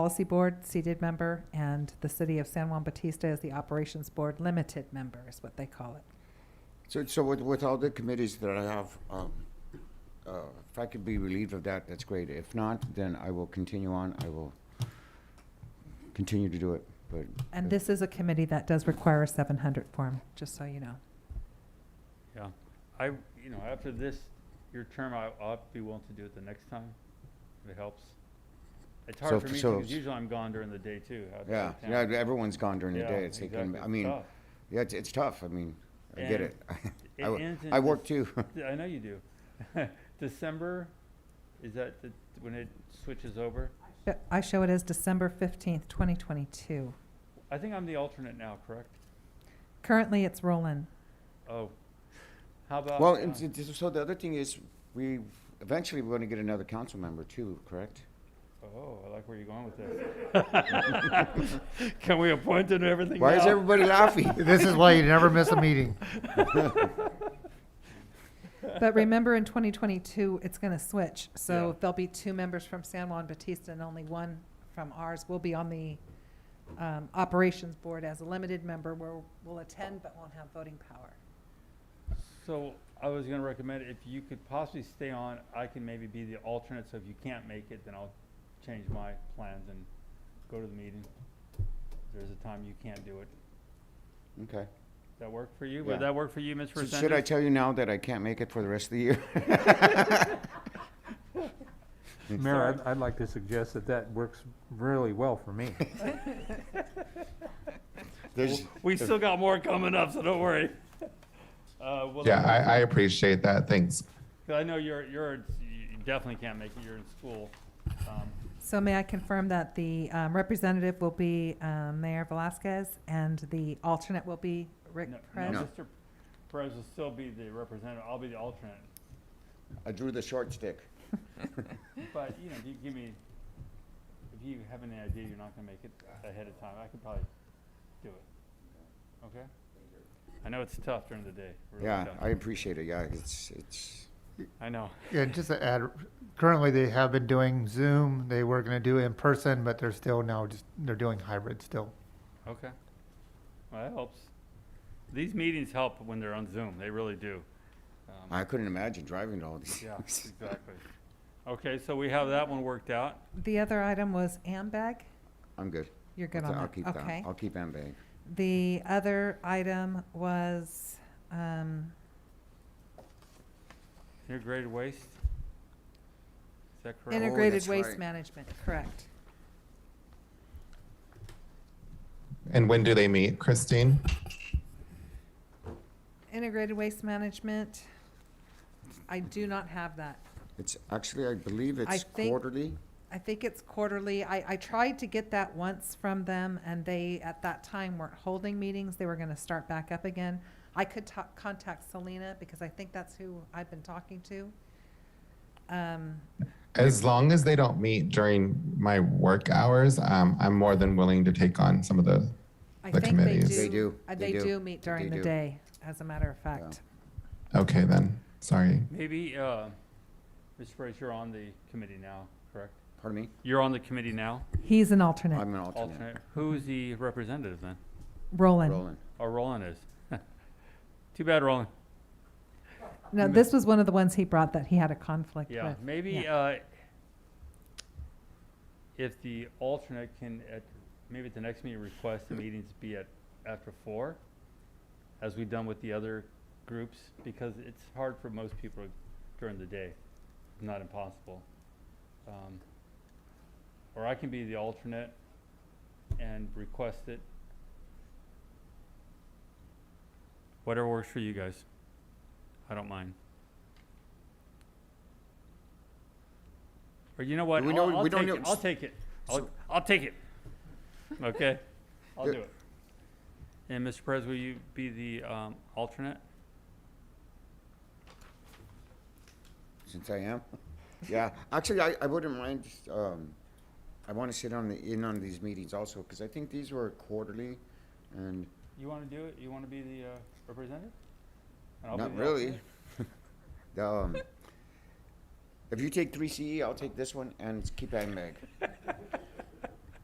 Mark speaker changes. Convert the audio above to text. Speaker 1: Policy Board, seated member, and the City of San Juan Bautista is the Operations Board, limited member is what they call it.
Speaker 2: So, so with, with all the committees that I have, um, uh, if I could be relieved of that, that's great. If not, then I will continue on. I will continue to do it, but
Speaker 1: And this is a committee that does require a 700 form, just so you know.
Speaker 3: Yeah, I, you know, after this, your term, I- I'll be willing to do it the next time, if it helps. It's
Speaker 2: So-
Speaker 3: hard for me,
Speaker 2: so-
Speaker 3: because usually I'm gone during the day too. out of
Speaker 2: yeah,
Speaker 3: town.
Speaker 2: yeah, everyone's gone during the
Speaker 3: Yeah,
Speaker 2: day. It's like, um,
Speaker 3: exactly.
Speaker 2: I mean,
Speaker 3: Tough.
Speaker 2: yeah, it's, it's tough. I mean, I get
Speaker 3: And
Speaker 2: it.
Speaker 3: it
Speaker 2: I wo-
Speaker 3: ends in
Speaker 2: I work
Speaker 3: Dec-
Speaker 2: too.
Speaker 3: Yeah, I know you do. December, is that the- when it switches over?
Speaker 1: Sh- Uh, I show it as December 15th, 2022.
Speaker 3: I think I'm the alternate now, correct?
Speaker 1: Currently, it's Roland.
Speaker 3: Oh, how about?
Speaker 2: Well,
Speaker 3: uh,
Speaker 2: and s- s- so the other thing is, we, eventually we're gonna get another council member too, correct?
Speaker 3: Oh, I like where you're going with this. Can we appoint him to everything
Speaker 2: Why is
Speaker 3: now?
Speaker 2: everybody laughing?
Speaker 4: This is why you never miss a meeting.
Speaker 1: But remember, in 2022, it's going to switch.
Speaker 3: Yeah.
Speaker 1: So there'll be two members from San Juan Bautista and only one from ours. We'll be on the um, Operations Board as a limited member where we'll attend but won't have voting power.
Speaker 3: So I was gonna recommend if you could possibly stay on, I can maybe be the alternate, so if you can't make it, then I'll change my plans and go to the meeting. If There's a time you can't do it.
Speaker 2: Okay.
Speaker 3: That work for you?
Speaker 2: Yeah.
Speaker 3: Would that work for you, Ms.
Speaker 2: So Should I
Speaker 3: Resendez?
Speaker 2: tell you now that I can't make it for the rest of the year?
Speaker 5: Mayor, I'd, I'd like to suggest that that works really well for me.
Speaker 2: There's,
Speaker 3: We still got more coming up, so don't worry. Uh, well,
Speaker 6: Yeah, I, I appreciate that. Thanks.
Speaker 3: 'cause I know you're, you're, you definitely can't make it, you're in school. Um,
Speaker 1: So may I confirm that the um, representative will be um, Mayor Velasquez and the alternate will be Rick
Speaker 3: no-
Speaker 1: Perez?
Speaker 3: No, Mr. Perez will still be the representative, I'll be the alternate.
Speaker 2: I drew the short stick.
Speaker 3: But, you know, if you give me, if you have any idea you're not gonna make it ahead of time, I could probably do it. Okay? I know it's tough during the day, really
Speaker 2: Yeah,
Speaker 3: tough.
Speaker 2: I appreciate it. Yeah, it's, it's,
Speaker 3: I know.
Speaker 4: Yeah, just to add, currently they have been doing Zoom. They were going to do in person, but they're still now just, they're doing hybrid still.
Speaker 3: Okay. Well, that helps. These meetings help when they're on Zoom, they really do. Um,
Speaker 2: I couldn't imagine driving to all these.
Speaker 3: Yeah, exactly. Okay, so we have that one worked out.
Speaker 1: The other item was AMBAG.
Speaker 2: I'm good.
Speaker 1: You're good
Speaker 2: I'll
Speaker 1: on that?
Speaker 2: I'll keep that.
Speaker 1: Okay.
Speaker 2: I'll keep Ambay.
Speaker 1: The other item was um,
Speaker 3: Integrated waste? Is that correct?
Speaker 2: Integra-
Speaker 1: integrated
Speaker 2: that's
Speaker 1: waste
Speaker 2: right.
Speaker 1: management, correct.
Speaker 6: And when do they meet, Christine?
Speaker 1: Integrated waste management, I do not have that.
Speaker 2: It's actually, I believe
Speaker 1: I
Speaker 2: it's
Speaker 1: think-
Speaker 2: quarterly.
Speaker 1: I think it's quarterly. I, I tried to get that once from them and they, at that time, weren't holding meetings. They were gonna start back up again. I could ta- contact Selena because I think that's who I've been talking to. Um,
Speaker 6: As long as they don't meet during my work hours, um, I'm more than willing to take on some of the.
Speaker 1: I
Speaker 6: The
Speaker 1: think they do.
Speaker 6: committees.
Speaker 2: They do.
Speaker 1: uh,
Speaker 2: They
Speaker 1: They
Speaker 2: do.
Speaker 1: do meet during the
Speaker 2: They do.
Speaker 1: day, as a matter of fact.
Speaker 6: Okay, then. Sorry.
Speaker 3: Maybe, uh, Mr. Perez, you're on the committee now, correct?
Speaker 2: Pardon me?
Speaker 3: You're on the committee now?
Speaker 1: He's an alternate.
Speaker 2: I'm an alternate.
Speaker 3: alternate. Who's the representative then?
Speaker 1: Roland.
Speaker 2: Roland.
Speaker 3: Oh, Roland is. Too bad, Roland.
Speaker 1: No, this was one of the ones he brought that he had a conflict
Speaker 3: Yeah,
Speaker 1: with.
Speaker 3: maybe,
Speaker 1: yeah.
Speaker 3: uh, if the alternate can, at, maybe at the next meeting, request the meetings be at, after four, as we've done with the other groups, because it's hard for most people during the day, not impossible. Um, Or I can be the alternate and request it. Whatever works for you guys. I don't mind. Or you know what?
Speaker 2: we
Speaker 3: I'll,
Speaker 2: know-
Speaker 3: I'll
Speaker 2: we don't
Speaker 3: take
Speaker 2: know-
Speaker 3: it. I'll take it. I'll,
Speaker 2: so-
Speaker 3: I'll take it. Okay, I'll
Speaker 2: Yeah.
Speaker 3: do it. And Mr. Perez, will you be the um, alternate?
Speaker 2: Since I am. Yeah, actually, I, I wouldn't mind, um, I want to sit on the, in on these meetings also, because I think these were quarterly. And
Speaker 3: You want to do it? You want to be the uh, representative? And I'll be
Speaker 2: not
Speaker 3: the
Speaker 2: really.
Speaker 3: alternate?
Speaker 2: E, The, um, If you take three CE, I'll take this one and keep Ambay.